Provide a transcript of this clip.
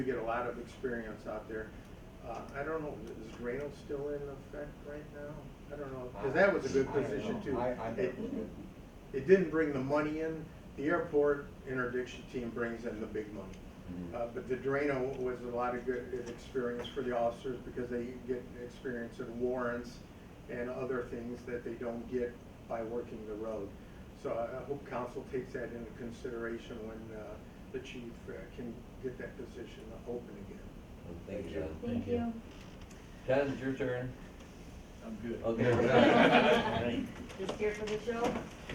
We get a lot of experience out there. Uh, I don't know, is Grano still in effect right now? I don't know, because that was a good I don't position know. too. I- I thought It- it was good. It didn't bring the money in. The airport interdiction team brings in the big money. Mhm. Uh, but the Drano was a lot of good experience for the officers because they get experience in warrants and other things that they don't get by working the road. So I, I hope council takes that into consideration when, uh, the chief uh, can get that position open again. Thank you, John. Thank you. John, it's your turn. I'm good. Okay. Just here for the show?